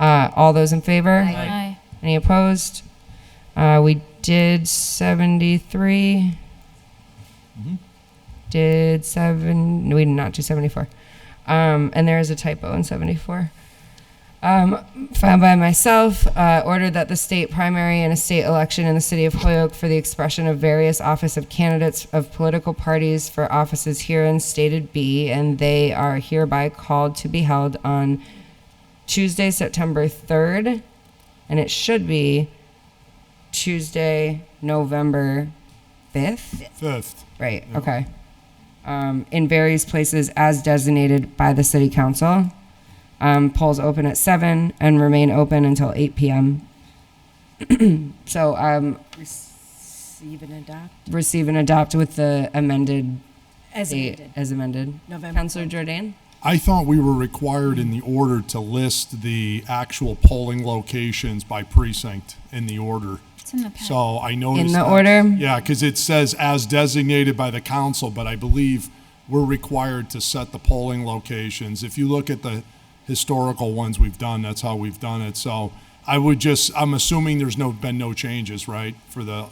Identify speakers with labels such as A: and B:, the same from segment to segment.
A: Uh, All those in favor?
B: Aye.
A: Any opposed? Uh, we did 73. Did seven? No, we did not do 74. Um, and there is a typo in 74. Um, found by myself, uh, ordered that the state primary and a state election in the city of Holyoke for the expression of various office of candidates of political parties for offices herein stated be, and they are hereby called to be held on Tuesday, September 3rd, and it should be Tuesday, November 5th.
C: Fifth.
A: Right, okay. Um, in various places as designated by the city council. Um, polls open at 7 and remain open until 8 p.m. so um,
D: Receive and adopt
A: receive and adopt with the amended
D: as
A: date
D: amended.
A: as amended.
D: November
A: Councilor Jordan?
C: I thought we were required in the order to list the actual polling locations by precinct in the order.
B: It's in the packet.
C: So I noticed.
A: the
C: that-
A: order?
C: Yeah, because it says as designated by the council, but I believe we're required to set the polling locations. If you look at the historical ones we've done, that's how we've done it. So I would just, I'm assuming there's no, been no changes, right, for the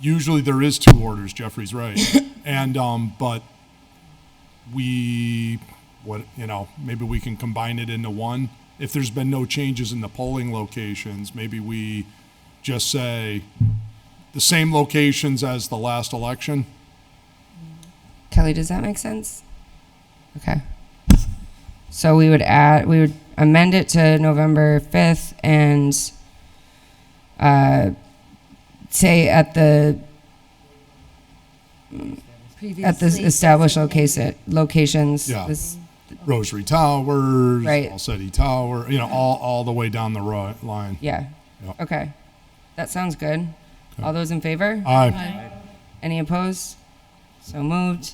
C: Usually there is two orders, Jeffrey's right. And, um, but we, what, you know, maybe we can combine it into one. If there's been no changes in the polling locations, maybe we just say the same locations as the last election.
A: Kelly, does that make sense? Okay. So we would add, we would amend it to November 5th and uh, say at the, at the established location, locations.
C: Yeah.
A: this-
C: Rosary Towers,
A: Right.
C: Alcetti Tower, you know, all, all the way down the ro- line.
A: Yeah.
C: Yeah.
A: Okay. That sounds good. All those in favor?
C: Aye.
A: Any opposed? So moved.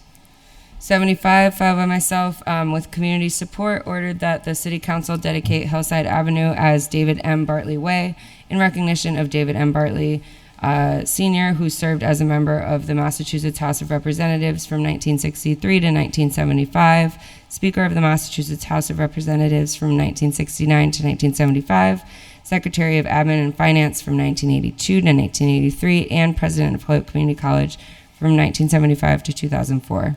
A: 75, filed by myself, um, with community support, ordered that the city council dedicate Hillside Avenue as David M. Bartley Way in recognition of David M. Bartley, uh, Senior, who served as a member of the Massachusetts House of Representatives from 1963 to 1975, Speaker of the Massachusetts House of Representatives from 1969 to 1975, Secretary of Admin and Finance from 1982 to 1983, and President of Hoyok Community College from 1975 to 2004.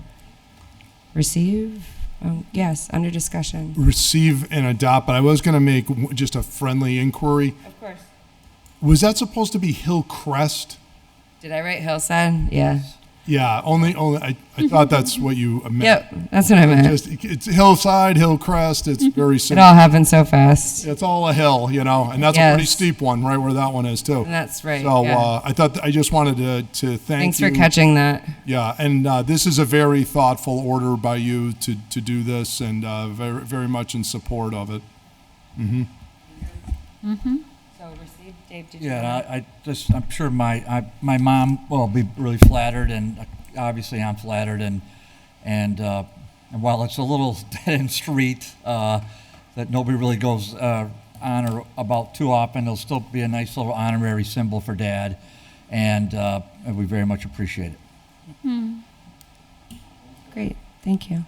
A: Receive? Oh, yes, under discussion.
C: Receive and adopt, but I was going to make w- just a friendly inquiry.
A: Of course.
C: Was that supposed to be Hillcrest?
A: Did I write Hillside? Yeah.
C: Yeah, only, only, I, I thought that's what you meant.
A: Yep, that's what I meant.
C: Just, it's hillside, hillcrest, it's
A: Mm-hmm.
C: very
A: It
C: simple.
A: all happened so fast.
C: It's all a hill, you know, and that's a pretty
A: Yes.
C: steep one, right where that one is too.
A: That's right,
C: So,
A: yeah.
C: uh, I thought, I just wanted to, to thank
A: Thanks
C: you.
A: for catching that.
C: Yeah, and, uh, this is a very thoughtful order by you to, to do this and, uh, very, very much in support of it.
A: So receive, Dave, did
E: Yeah, and I, I just, I'm sure my, I, my mom will be really flattered, and uh, obviously I'm flattered, and, and, uh, and while it's a little dead-end street, uh, that nobody really goes, uh, on or about too often, it'll still be a nice little honorary symbol for Dad, and, uh, and we very much appreciate it.
A: Great, thank you.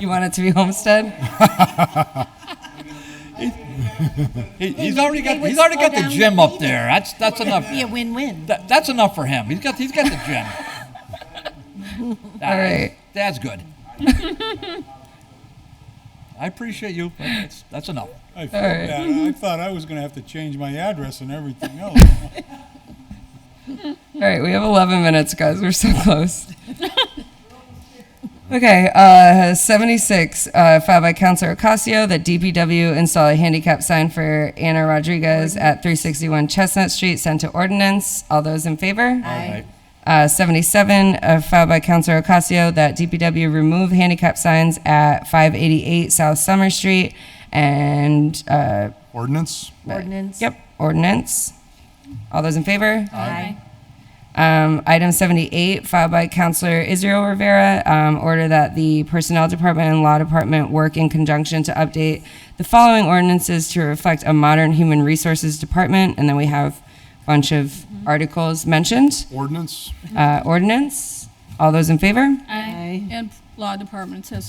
A: You want it to be Homestead?
E: He, he's already got,
D: they would
E: he's already
D: slow
E: got the
D: down
E: gym
D: the
E: up
D: meeting.
E: there, that's, that's enough,
D: Be a win-win.
E: that, that's enough for him, he's got, he's got the gym.
A: All right.
E: That's good. I appreciate you, but that's, that's enough.
F: I felt
A: right.
F: bad. I thought I was gonna have to change my address and everything else.
A: All right, we have 11 minutes, guys. We're so close. Okay, uh, 76, uh, filed by Counselor Ocasio, that DPW install a handicap sign for Anna Rodriguez at 361 Chestnut Street, sent to ordinance. All those in favor?
E: Right.
A: Uh, 77, uh, filed by Counselor Ocasio, that DPW remove handicap signs at 588 South Summer Street and, uh,
C: Ordinance?
D: Ordinance.
A: yep, ordinance. All those in favor?
D: Aye.
A: Um, item 78, filed by Counselor Israel Rivera, um, order that the Personnel Department and Law Department work in conjunction to update the following ordinances to reflect a modern Human Resources Department. And then we have a bunch of articles mentioned.
C: Ordinance?
A: Uh, ordinance, all those in favor?
B: Aye.
D: Aye.
B: And law departments has